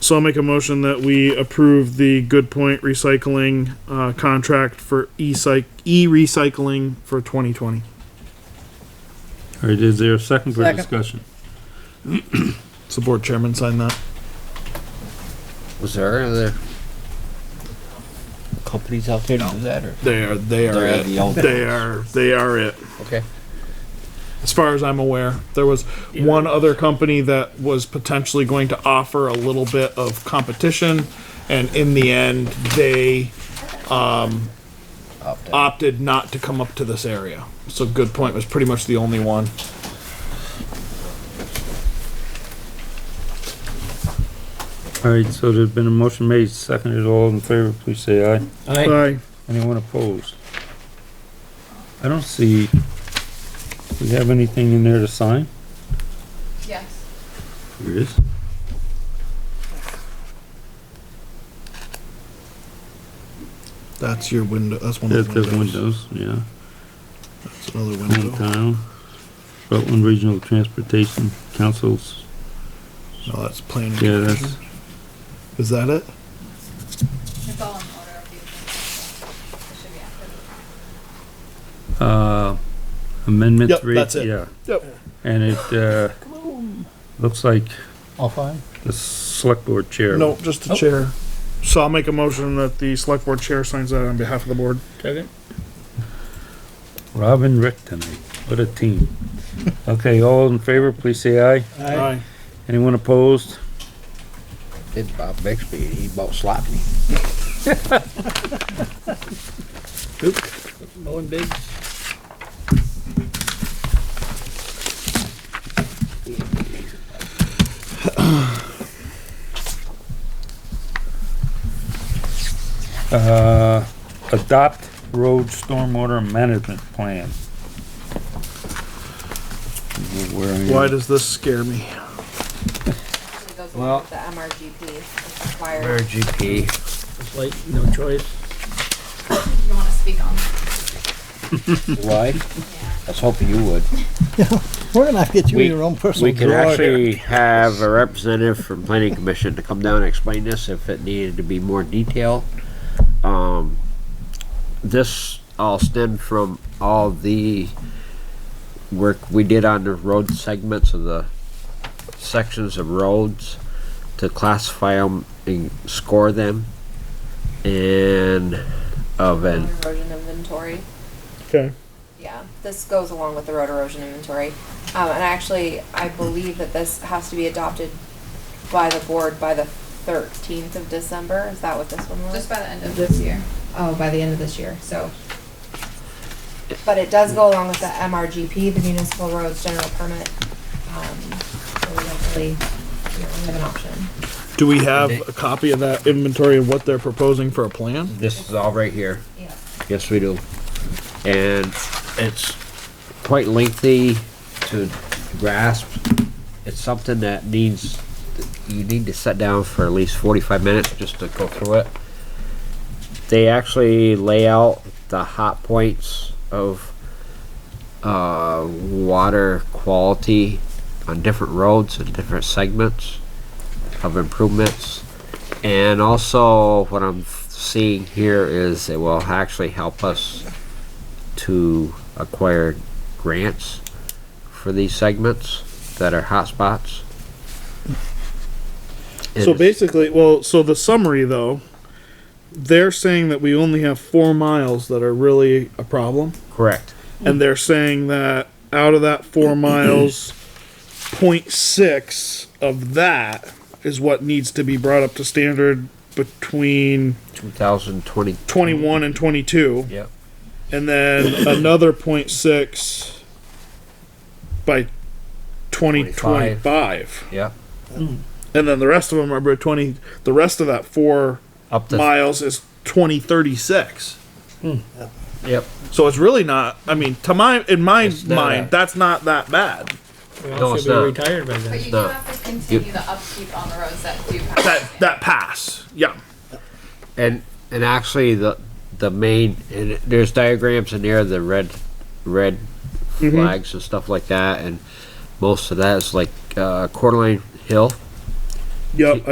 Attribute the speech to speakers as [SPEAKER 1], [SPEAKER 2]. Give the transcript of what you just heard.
[SPEAKER 1] So I'll make a motion that we approve the Good Point Recycling uh, contract for e-cyc e-recycling for 2020.
[SPEAKER 2] All right, is there a second for
[SPEAKER 3] Second.
[SPEAKER 2] discussion?
[SPEAKER 1] So board chairman sign that.
[SPEAKER 4] Was there other companies out there to do that or?
[SPEAKER 1] They are they are
[SPEAKER 4] They're
[SPEAKER 1] it.
[SPEAKER 4] the old
[SPEAKER 1] They
[SPEAKER 4] ones.
[SPEAKER 1] are they are it.
[SPEAKER 4] Okay.
[SPEAKER 1] As far as I'm aware, there was one other company that was potentially going to offer a little bit of competition, and in the end, they
[SPEAKER 4] Opt out.
[SPEAKER 1] opted not to come up to this area. So Good Point was pretty much the only one.
[SPEAKER 2] All right, so there's been a motion made, seconded, all in favor, please say aye.
[SPEAKER 4] Alright,
[SPEAKER 2] Anyone opposed? I don't see, we have anything in there to sign?
[SPEAKER 5] Yes.
[SPEAKER 2] There is.
[SPEAKER 1] That's your window. That's one
[SPEAKER 2] That's
[SPEAKER 1] of the
[SPEAKER 2] the
[SPEAKER 1] windows.
[SPEAKER 2] windows, yeah.
[SPEAKER 1] That's another window.
[SPEAKER 2] Hometown, Rutland Regional Transportation Councils,
[SPEAKER 1] No, that's planning.
[SPEAKER 2] yeah, that's,
[SPEAKER 1] Is that it?
[SPEAKER 5] It's all in order of the agenda. It should be after the
[SPEAKER 2] uh, amendment
[SPEAKER 1] Yep,
[SPEAKER 2] three.
[SPEAKER 1] that's it.
[SPEAKER 2] Yeah,
[SPEAKER 1] Yep.
[SPEAKER 2] and it, uh, looks like
[SPEAKER 4] all fine.
[SPEAKER 2] the select board chair.
[SPEAKER 1] No, just the
[SPEAKER 4] Oh.
[SPEAKER 1] chair. So I'll make a motion that the select board chair signs that on behalf of the board.
[SPEAKER 4] Second.
[SPEAKER 2] Robin Rick tonight, what a team. Okay, all in favor, please say aye.
[SPEAKER 1] Aye.
[SPEAKER 2] Anyone opposed?
[SPEAKER 4] It's Bob Bixby, he bought sloppy. Mowing big.
[SPEAKER 2] Uh, adopt road stormwater management plan. Where are you?
[SPEAKER 1] Why does this scare me?
[SPEAKER 5] actually goes
[SPEAKER 4] Well-
[SPEAKER 5] along with the MRGP. It's
[SPEAKER 4] Where
[SPEAKER 5] required.
[SPEAKER 4] GP?
[SPEAKER 6] It's like, no choice.
[SPEAKER 5] You don't wanna speak on that.
[SPEAKER 4] Why? I was hoping you would.
[SPEAKER 6] We're gonna have to get you
[SPEAKER 4] We-
[SPEAKER 6] your own personal
[SPEAKER 4] We could
[SPEAKER 6] drawer.
[SPEAKER 4] actually have a representative from planning commission to come down and explain this if it needed to be more detailed. Um, this all stemmed from all the work we did on the road segments of the sections of roads to classify them and score them. And uh, of an,
[SPEAKER 5] Road erosion inventory.
[SPEAKER 1] Okay.
[SPEAKER 5] Yeah, this goes along with the road erosion inventory. Um, and actually, I believe that this has to be adopted by the board by the thirteenth of December. Is that what this one was? Just by the end of this year. Oh, by the end of this year, so. But it does go along with the MRGP, the Municipal Roads General Permit. Um, so we don't really, we don't really have an option.
[SPEAKER 1] Do we have a copy of that inventory of what they're proposing for a plan?
[SPEAKER 4] this is all right here.
[SPEAKER 5] Yeah.
[SPEAKER 4] Yes, we do. And it's quite lengthy to grasp. It's something that needs, you need to sit down for at least forty-five minutes just to go through it. They actually lay out the hot points of, uh, water quality on different roads and different segments of improvements. And also, what I'm f- seeing here is it will actually help us to acquire grants for these segments that are hotspots.
[SPEAKER 1] So basically, well, so the summary though, they're saying that we only have four miles that are really a problem.
[SPEAKER 4] Correct.
[SPEAKER 1] and they're saying that out of that four miles, 0.6 of that is what needs to be brought up to standard between
[SPEAKER 4] 2020.
[SPEAKER 1] 21 and 22,
[SPEAKER 4] Yep.
[SPEAKER 1] and then another 0.6 by 2025,
[SPEAKER 4] Yep.
[SPEAKER 1] and then the rest of them are by 20. The rest of that four
[SPEAKER 4] Up to.
[SPEAKER 1] miles is 2036.
[SPEAKER 4] Yep.
[SPEAKER 1] So it's really not. I mean, to my in my
[SPEAKER 4] It's not.
[SPEAKER 1] mind, that's not that bad.
[SPEAKER 6] We
[SPEAKER 4] No,
[SPEAKER 6] all
[SPEAKER 4] it's
[SPEAKER 6] should be
[SPEAKER 4] not.
[SPEAKER 6] retired by then.
[SPEAKER 5] But you do
[SPEAKER 4] No.
[SPEAKER 5] have to continue the upkeep on the roads that do pass.
[SPEAKER 1] that that pass. Yeah.
[SPEAKER 4] And and actually the the main and it- there's diagrams in there the red red flags and stuff like that and most of that is like uh, Quarter Lane Hill.
[SPEAKER 1] Yep.